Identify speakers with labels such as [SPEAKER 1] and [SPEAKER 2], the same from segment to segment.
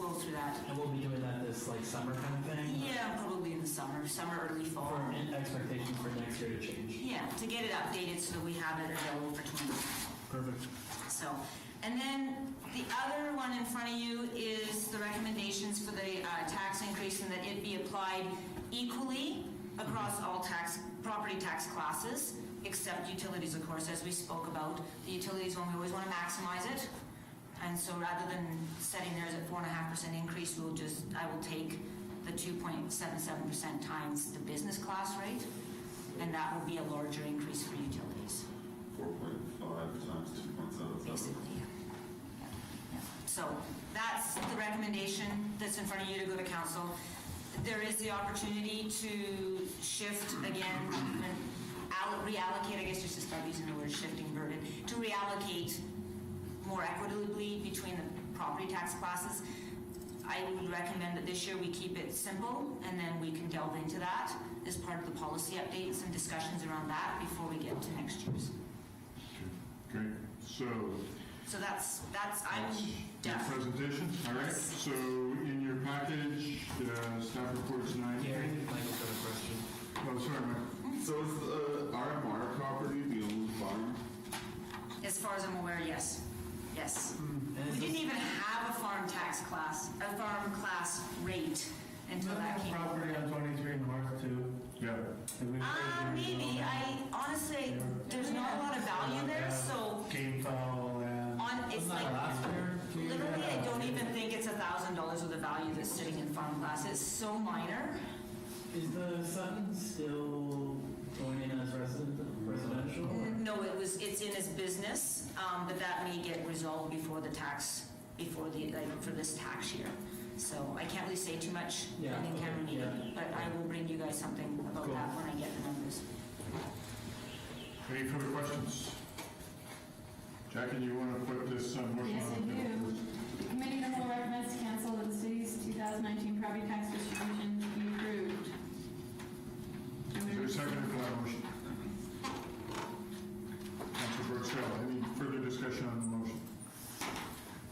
[SPEAKER 1] And we'll be doing that this like summer kind of thing?
[SPEAKER 2] Yeah, probably in the summer, summer, early fall.
[SPEAKER 1] For an expectation for next year to change.
[SPEAKER 2] Yeah, to get it updated so that we have it available for 2020.
[SPEAKER 1] Perfect.
[SPEAKER 2] So, and then the other one in front of you is the recommendations for the uh, tax increase and that it be applied equally across all tax, property tax classes, except utilities, of course, as we spoke about. The utilities one, we always want to maximize it. And so rather than setting theirs at four and a half percent increase, we'll just, I will take the two point seven seven percent times the business class rate, and that will be a larger increase for utilities.
[SPEAKER 3] Four point five times two point seven seven.
[SPEAKER 2] Basically, yeah. Yeah, yeah. So that's the recommendation that's in front of you to go to council. There is the opportunity to shift again, and al- reallocate, I guess just to start using the word shifting burden, to reallocate more equitably between the property tax classes. I would recommend that this year we keep it simple, and then we can delve into that as part of the policy update and some discussions around that before we get to next year's.
[SPEAKER 4] Okay, so,
[SPEAKER 2] So that's, that's, I'm
[SPEAKER 4] that's the
[SPEAKER 2] done.
[SPEAKER 4] presentation, all right?
[SPEAKER 2] Yes.
[SPEAKER 4] So in your package, uh, staff reports nine.
[SPEAKER 1] Gary, Michael's got a question.
[SPEAKER 4] Oh, sorry, Mike.
[SPEAKER 5] Mm-hmm.
[SPEAKER 3] So is the RMR property the only farm?
[SPEAKER 2] As far as I'm aware, yes, yes.
[SPEAKER 1] And
[SPEAKER 2] We
[SPEAKER 1] is
[SPEAKER 2] didn't
[SPEAKER 1] this-
[SPEAKER 2] even have a farm tax class, a farm class rate until that came.
[SPEAKER 6] Property on twenty-three north too.
[SPEAKER 4] Yeah,
[SPEAKER 6] that we-
[SPEAKER 2] Uh, maybe, I honestly, there's not a lot of value there, so
[SPEAKER 6] Game foul and.
[SPEAKER 2] on, it's
[SPEAKER 1] Wasn't that
[SPEAKER 2] like,
[SPEAKER 1] last year? Two years
[SPEAKER 2] literally, I
[SPEAKER 1] ago?
[SPEAKER 2] don't even think it's a thousand dollars of the value that's sitting in farm class, it's so minor.
[SPEAKER 1] Is the Sutton still going in as resident, residential? or-
[SPEAKER 2] No, it was, it's in his business, um, but that may get resolved before the tax, before the, like, for this tax year. So I can't really say too much in
[SPEAKER 1] Yeah,
[SPEAKER 2] the camera
[SPEAKER 1] okay,
[SPEAKER 2] meeting, but I will bring you guys something about
[SPEAKER 1] Cool.
[SPEAKER 2] that when I get the numbers.
[SPEAKER 4] any further questions? Jackie, you want to put this uh, motion
[SPEAKER 5] Yes, I
[SPEAKER 4] on?
[SPEAKER 5] do. Committee of the Whole recommends to cancel the city's 2019 property tax distribution to be approved.
[SPEAKER 4] Is there a second for that motion? Councilor Brooksdale, any further discussion on the motion?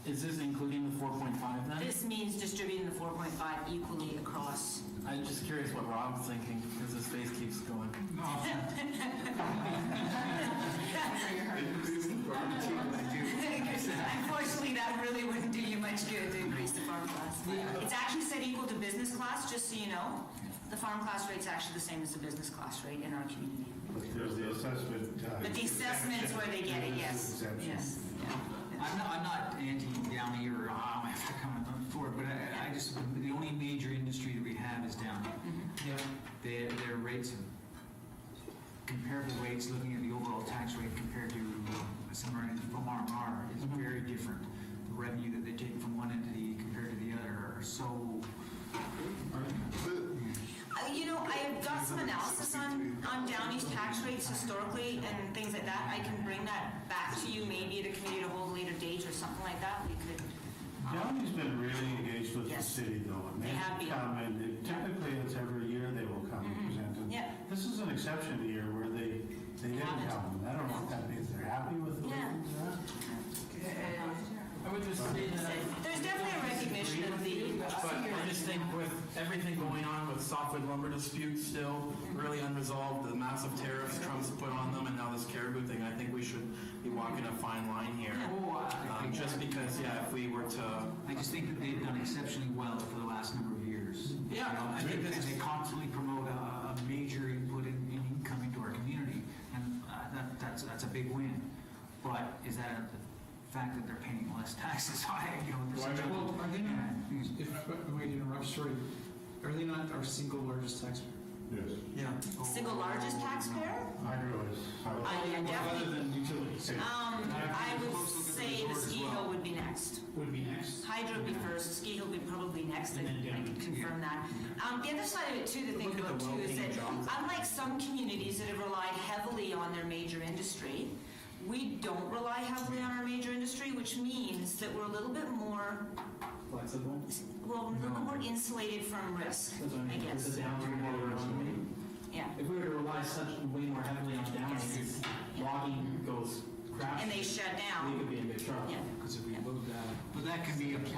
[SPEAKER 1] Is this including the 4.5 then?
[SPEAKER 2] This means distributing the four point five equally across.
[SPEAKER 1] I'm just curious what Rob's thinking, because his face keeps going.
[SPEAKER 2] Unfortunately, that really wouldn't do you much good to increase the farm class. It's actually said equal to business class, just so you know. The farm class rate's actually the same as the business class rate in our community.
[SPEAKER 7] There's the assessment. uh,
[SPEAKER 2] But the assessment's where they get it, yes,
[SPEAKER 7] Exemption.
[SPEAKER 2] yes.
[SPEAKER 8] I'm not, I'm not anti-Downey or, ah, I have to come forward, but I, I just, the only major industry that we have is Downey.
[SPEAKER 1] Yeah.
[SPEAKER 8] Their, their rates, comparable rates, looking at the overall tax rate compared to uh, somewhere in the RMR is
[SPEAKER 5] Mm-hmm.
[SPEAKER 8] very different. The revenue that they take from one entity compared to the other are so,
[SPEAKER 2] Uh, You know, I have got some analysis on, on Downey's tax rates historically and things like that. I can bring that back to you maybe at a committee to hold later date or something like that. We could,
[SPEAKER 7] Downey's been really engaged with the
[SPEAKER 2] Yes.
[SPEAKER 7] city though. and
[SPEAKER 2] They have been. Mm-hmm.
[SPEAKER 7] Come and they- typically it's every year they will come and present. and
[SPEAKER 2] Yeah.
[SPEAKER 7] This is an exception year where they, they didn't
[SPEAKER 2] haven't.
[SPEAKER 7] come. and I don't know if that means they're happy with the way
[SPEAKER 2] Yeah.
[SPEAKER 7] things are.
[SPEAKER 1] I would just say that. I-
[SPEAKER 2] there's definitely a recognition of the,
[SPEAKER 1] But I just think with everything going on with softwood lumber disputes still really unresolved, the massive tariffs Trump's put on them, and now this caribou thing, I think we should be walking a fine line here.
[SPEAKER 8] oh, I,
[SPEAKER 1] Um, just because, yeah, if we were to,
[SPEAKER 8] I just think that they've done exceptionally well for the last number of years.
[SPEAKER 1] Yeah,
[SPEAKER 8] You know,
[SPEAKER 1] I
[SPEAKER 8] And
[SPEAKER 1] think
[SPEAKER 8] they-
[SPEAKER 1] this
[SPEAKER 8] and
[SPEAKER 1] is-
[SPEAKER 8] they constantly promote a, a major input in, in income into our community, and uh, that, that's, that's a big win. But is that a fact that they're paying less taxes? I, you know, there's
[SPEAKER 4] Why
[SPEAKER 8] a-
[SPEAKER 9] Well, are they not,
[SPEAKER 8] Yeah.
[SPEAKER 9] if, if I may interrupt, sorry, are they not our single largest taxpayer?
[SPEAKER 4] Yes.
[SPEAKER 8] Yeah.
[SPEAKER 2] single largest taxpayer?
[SPEAKER 7] Hydro is.
[SPEAKER 2] Uh, yeah,
[SPEAKER 7] Other
[SPEAKER 2] definitely.
[SPEAKER 7] than utilities.
[SPEAKER 2] Um, I would say the ski hill would be next.
[SPEAKER 9] Would be next.
[SPEAKER 2] Hydro would be first, ski hill would be probably next, I I can confirm that. Um, the other side of it too, to think about too, is that unlike some communities that have relied heavily on their major industry, we don't rely heavily on our major industry, which means that we're a little bit more,
[SPEAKER 1] flexible.
[SPEAKER 2] well, we're a little bit more insulated from risk,
[SPEAKER 1] That's what I
[SPEAKER 2] I
[SPEAKER 1] mean,
[SPEAKER 2] guess.
[SPEAKER 1] it's a downturn in our economy.
[SPEAKER 2] yeah.
[SPEAKER 1] If we were to rely such way more heavily on down,
[SPEAKER 2] Yes.
[SPEAKER 1] if logging goes crap,
[SPEAKER 2] And they shut down,
[SPEAKER 1] we could be in big trouble.
[SPEAKER 2] yeah.
[SPEAKER 8] But that can be applied